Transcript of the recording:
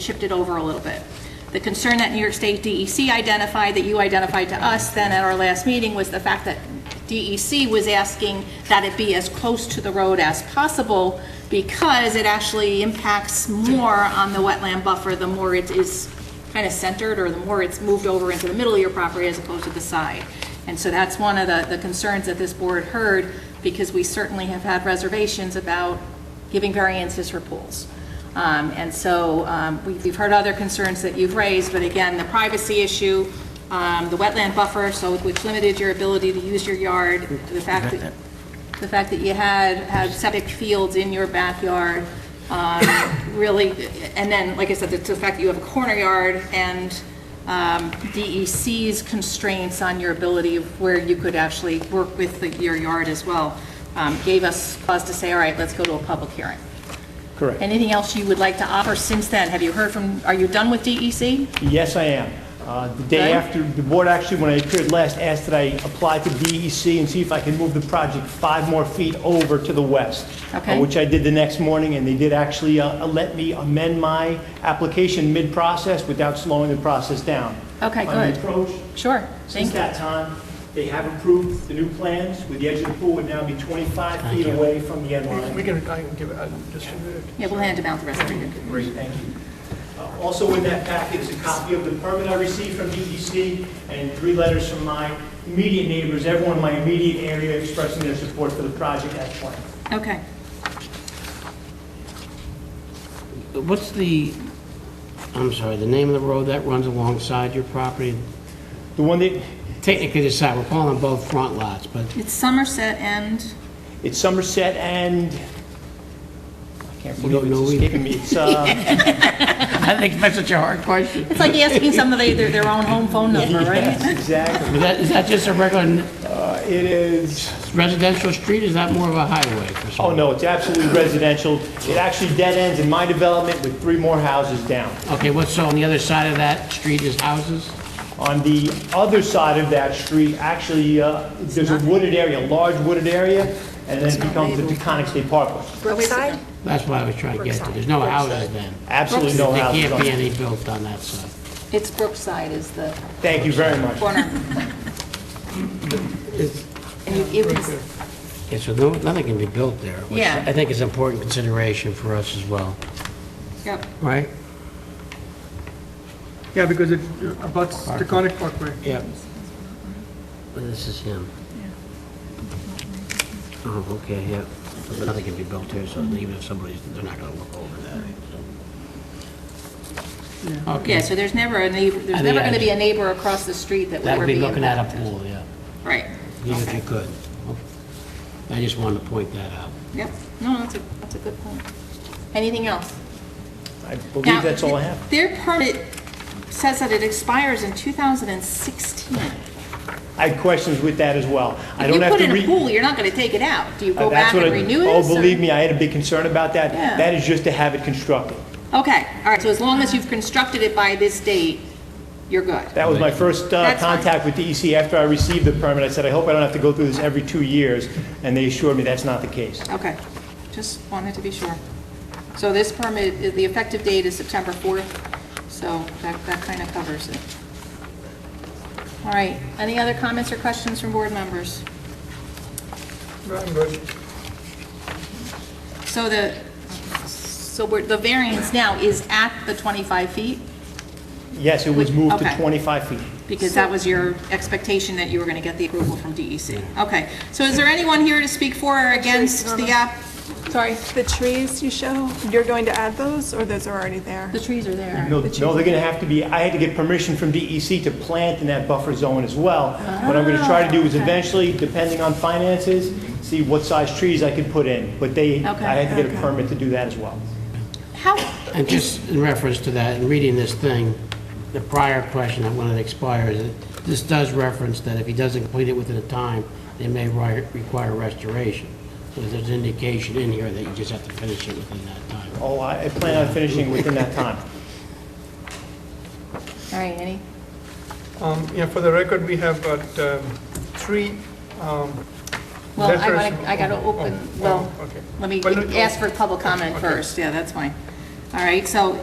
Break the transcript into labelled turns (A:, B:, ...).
A: shipped it over a little bit. The concern that New York State DEC identified, that you identified to us then at our last meeting, was the fact that DEC was asking that it be as close to the road as possible because it actually impacts more on the wetland buffer the more it is kind of centered or the more it's moved over into the middle of your property as opposed to the side. And so that's one of the, the concerns that this board heard because we certainly have had reservations about giving variances for pools. Um, And so um, we- we've heard other concerns that you've raised, but again, the privacy issue, um, the wetland buffer, so which limited your ability to use your yard, the fact that, the fact that you had, had septic fields in your backyard, um, really, and then, like I said, the the fact that you have a corner yard and um, DEC's constraints on your ability of where you could actually work with the- your yard as well, um, gave us pause to say, all right, let's go to a public hearing.
B: Correct.
A: Anything else you would like to offer since then? Have you heard from, are you done with E DEC?
B: Yes, I am. Uh, The day
A: Okay.
B: after, the board actually, when I appeared last, asked that I apply to DEC and see if I could move the project five more feet over to the west. uh,
A: Okay.
B: Which I did the next morning, and they did actually uh, let me amend my application mid-process without slowing the process down.
A: Okay,
B: On
A: good.
B: the approach,
A: Sure,
B: Since
A: thank you.
B: that time, they have approved the new plans, with the edge of the pool would now be 25 feet away from the end line.
C: We can, I can give it, I just,
A: Yeah, we'll hand them out the rest of you.
B: Great, thank you. Uh, Also in that packet is a copy of the permit I received from DEC and three letters from my immediate neighbors, everyone in my immediate area expressing their support for the project as planned.
A: Okay.
D: What's the, I'm sorry, the name of the road that runs alongside your property?
B: The one that,
D: Technically, the side, we're calling them both front lots, but
A: It's Somerset and,
B: it's Somerset and, I can't
D: You don't
B: believe it's
D: know either.
B: escaping me. It's, uh,
D: I think that's such a hard question.
A: it's like asking somebody their, their own home phone number,
B: yes,
A: right?
B: exactly.
D: Is that, is that just a regular
B: Uh, It is,
D: residential street, is that more of a highway for some?
B: oh no, it's absolutely residential. It actually dead ends in my development with three more houses down.
D: Okay, what's, so on the other side of that street is houses?
B: On the other side of that street, actually, uh, there's a wooded area, a large wooded area, and then it becomes the Peconic State Parkway.
A: Brookside?
D: That's what I was trying to get to, there's no houses then.
B: Absolutely
D: There
B: no houses
D: can't
B: on
D: be
B: it.
D: any built on that side.
A: It's Brookside is the
B: Thank you very much.
A: corner. And you- it was-
D: Yeah, so no- nothing can be built there, which
A: Yeah.
D: I think is an important consideration for us as well,
A: Yep,
D: right?
C: yeah, because it abuts the Conic Parkway.
D: Yep. This is him. Oh, okay, yeah. But Nothing can be built here, so even if somebody's, they're not gonna look over that. so.
A: yeah,
D: Okay,
A: so there's never a neighbor, there's
D: And the
A: never going to
D: edge.
A: be a neighbor across the street that
D: that
A: would
D: would
A: be
D: be looking at a
A: impacted.
D: pool, yeah,
A: Right,
D: even if you could. I just wanted to point that out.
A: yep, no, that's a, that's a good point. Anything else?
B: I
A: Now,
B: believe that's all I have.
A: Their permit says that it expires in 2016.
B: I had questions with that as well. I
A: If
B: don't
A: you
B: have
A: put
B: to
A: in
B: re... uh,
A: a pool, you're not going to take it out. Do you go
B: That's
A: back
B: what
A: and
B: I-
A: renew it?
B: Oh, believe me, I had a big concern about that.
A: Yeah.
B: That is just to have it constructed.
A: Okay, all right, so as long as you've constructed it by this date, you're good.
B: That was my first uh,
A: That's fine.
B: contact with DEC after I received the permit. I said, I hope I don't have to go through this every two years, and they assured me that's not the case.
A: Okay, just wanted to be sure. So this permit, the effective date is September 4th, so that, that kind of covers it. All right, any other comments or questions from board members?
C: I'm good.
A: So the, so we're, the variance now is at the 25 feet?
B: Yes, it was moved
A: Okay.
B: to 25 feet.
A: Because that was your expectation that you were going to get the approval from DEC. Okay, so is there anyone here to speak for or against the app? Sorry,
E: The trees you show, you're going to add those, or those are already there?
A: the trees are there.
B: No, no, they're gonna have to be, I had to get permission from DEC to plant in that buffer zone as well. What I'm gonna try to do
A: Oh,
B: is eventually, depending on finances, see what size trees I could put in. But they,
A: Okay.
B: I had to get a permit to do that as well.
A: How,
D: And just in reference to that, in reading this thing, the prior question, when it expires, it- this does reference that if he doesn't complete it within a time, they may ri- require restoration. So there's an indication in here that you just have to finish it within that time.
B: Oh, I I plan on finishing within that time.
A: all right, any,
C: Um, yeah, for the record, we have got um, three, um,
A: well, I
C: Letters-
A: gotta, I gotta open,
C: oh,
A: well,
C: oh, okay.
A: let me
C: But no-
A: ask for public comment
C: Okay.
A: first, yeah, that's fine. All right, so